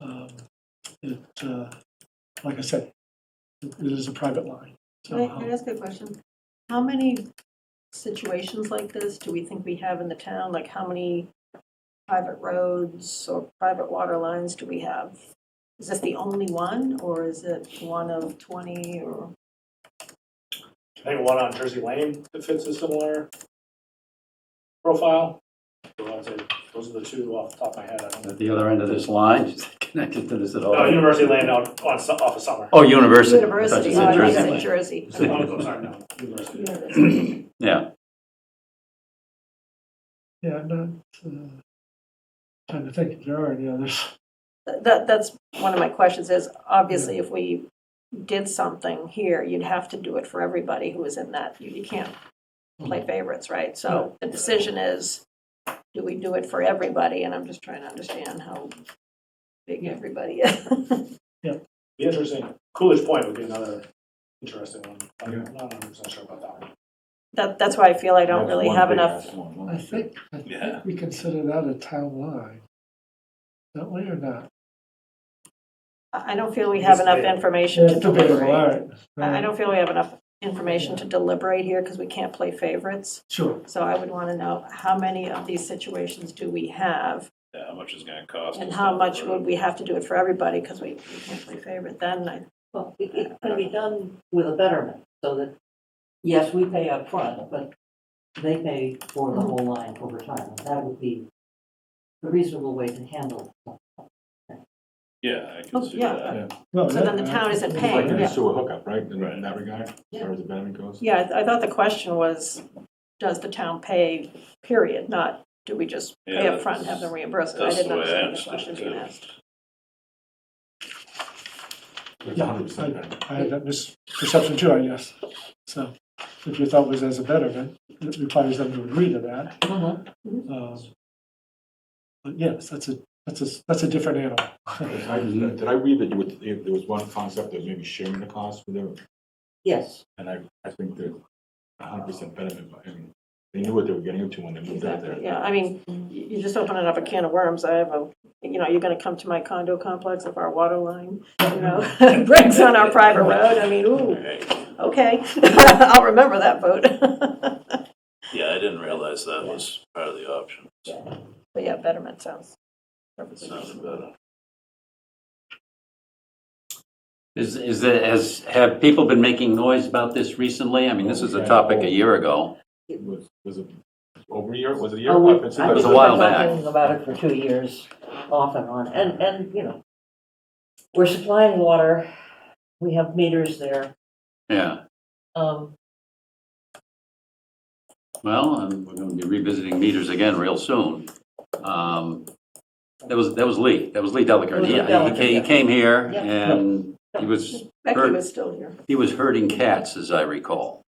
Um, It, uh, like I said, it it is a private line. Can I, can I So um, ask a question? How many situations like this do we think we have in the town? Like, how many private roads or private water lines do we have? Is this the only one, or is it one of 20, or? I think one on Jersey Lane that fits a similar profile. So I'd say those are the two off the top of my head. I don't know. At the other end of this line, is it connected to this at Oh, No, all? University Lane out on, Su- off of Summer. Uh, Oh, University. I thought you University, oh, said I Jersey said Lane. Jersey. Oh, I'm sorry, no, University. University. Yeah, Yeah, I'm not, uh, trying to think if there are any others. That, that's one of my questions is, obviously, if we did something here, you'd have to do it for everybody who was in that. You you can't play favorites, Mm-hmm. right? So the decision is, do we do it for everybody? And I'm just trying to understand how big everybody is. Be interesting. Coolidge Point would be another interesting one. I'm not 100% sure about that one. That, that's why I feel I don't really have enough. I think, I Yeah. think we consider that a town line. Don't we or not? I I don't feel we have It's enough debatable. information to It's debatable, all deliberate. right. I I don't feel we have enough information to deliberate here because we can't play favorites. Sure. So I would want to know, how many of these situations do we have? Yeah, how much is gonna cost? And how much would we have to do it for everybody because we we can't play favorite then? I- Well, it, it can be done with a betterment, so that, yes, we pay up front, but they pay for the whole line over time. And That would be the reasonable way to handle it. Yeah, I Oh, can see yeah. that. No, So that- then the town isn't It's paying, Like yeah. a sewer hookup, right, in in that regard, as Yeah. far as the betterment goes? Yeah, I th- I thought the question was, does the town pay, period, not do we just pay Yeah, up front and have them reimbursed? I That's the didn't way I understand the question understood being it. asked. It's Yeah, 100% I- betterment. I had that misperception too, I guess. So if your thought was as a betterment, it requires them to agree to that. Mm-hmm. Um, But yes, that's a, that's a, that's a different animal. Did I- Did I read that you would, if there was one concept of maybe sharing the cost with them, Yes, and I, I think that a hundred percent betterment, I mean, they knew what they were getting into when they moved out there. Exactly, yeah, I mean, you you just opening up a can of worms, I have a, you know, you're gonna come to my condo complex if our water line, you know, breaks on our private road, I mean, ooh, Right. okay, I'll remember that vote. Yeah, I didn't realize that was part of the option. But yeah, betterment sounds perfectly Sounded reasonable. better. is, is, there- has, have people been making noise about this recently? I mean, this was a topic a year ago. It Was, was it over a year, was it a year? Oh, we- I've been sitting I there was a for- think while we've been back. talking about it for two years, off and on, and, and, you know, we're supplying water, we have meters there, Yeah, um, well, um, we're going to be revisiting meters again real soon. Um, That was, that was Lee, that was Lee It Delacour. was Lee Yeah, he Delacour, ca- he yeah. came here Yeah. and he was, Becky was still here. he was herding cats, as I recall,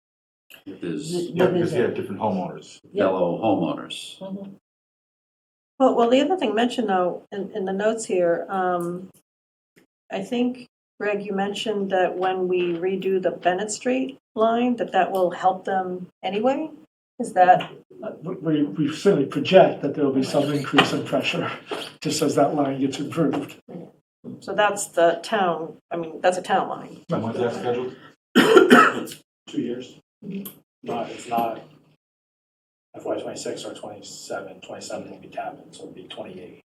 with his Yeah, What is because they it? had different homeowners. Yeah. fellow homeowners. mhm. Well, well, the other thing mentioned though, in, in the notes here, um, I think, Greg, you mentioned that when we redo the Bennett Street line, that that will help them anyway? Is that, We, we certainly project that there will be some increase in pressure just as that line gets improved. so that's the town, I mean, that's a town line. And when's that scheduled? Two years. Not, it's not FY twenty-six or twenty-seven. Twenty-seven will be tapping, so it'll be twenty-eight.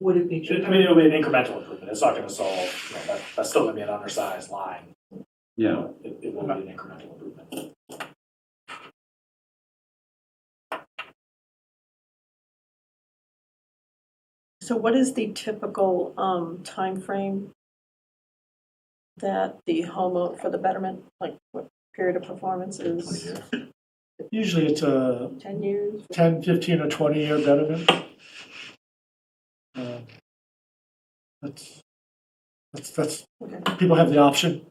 Would it be I true? mean, it'll be an incremental improvement. It's not gonna solve, you know, that, that's still gonna be an undersized line. Yeah. It, it will be an incremental improvement. So what is the typical, um, timeframe that the homeowner, for the betterment, like what period of performance is? Usually it's a 10 years? 10, 15, or 20-year betterment. Uh, That's, that's, that's, Okay. people have the option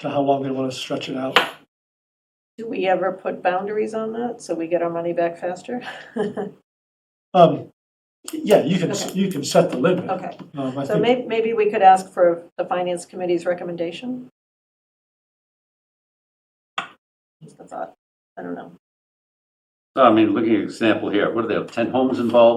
to how long they want to stretch it out. Do we ever put boundaries on that so we get our money back faster? Um, Yeah, you can, s- Okay. you can set the limit. Okay. Um, I So think may, maybe we could ask for the finance committee's recommendation? Just a thought, I don't know. So I mean, looking at example here, what are they, 10 homes involved?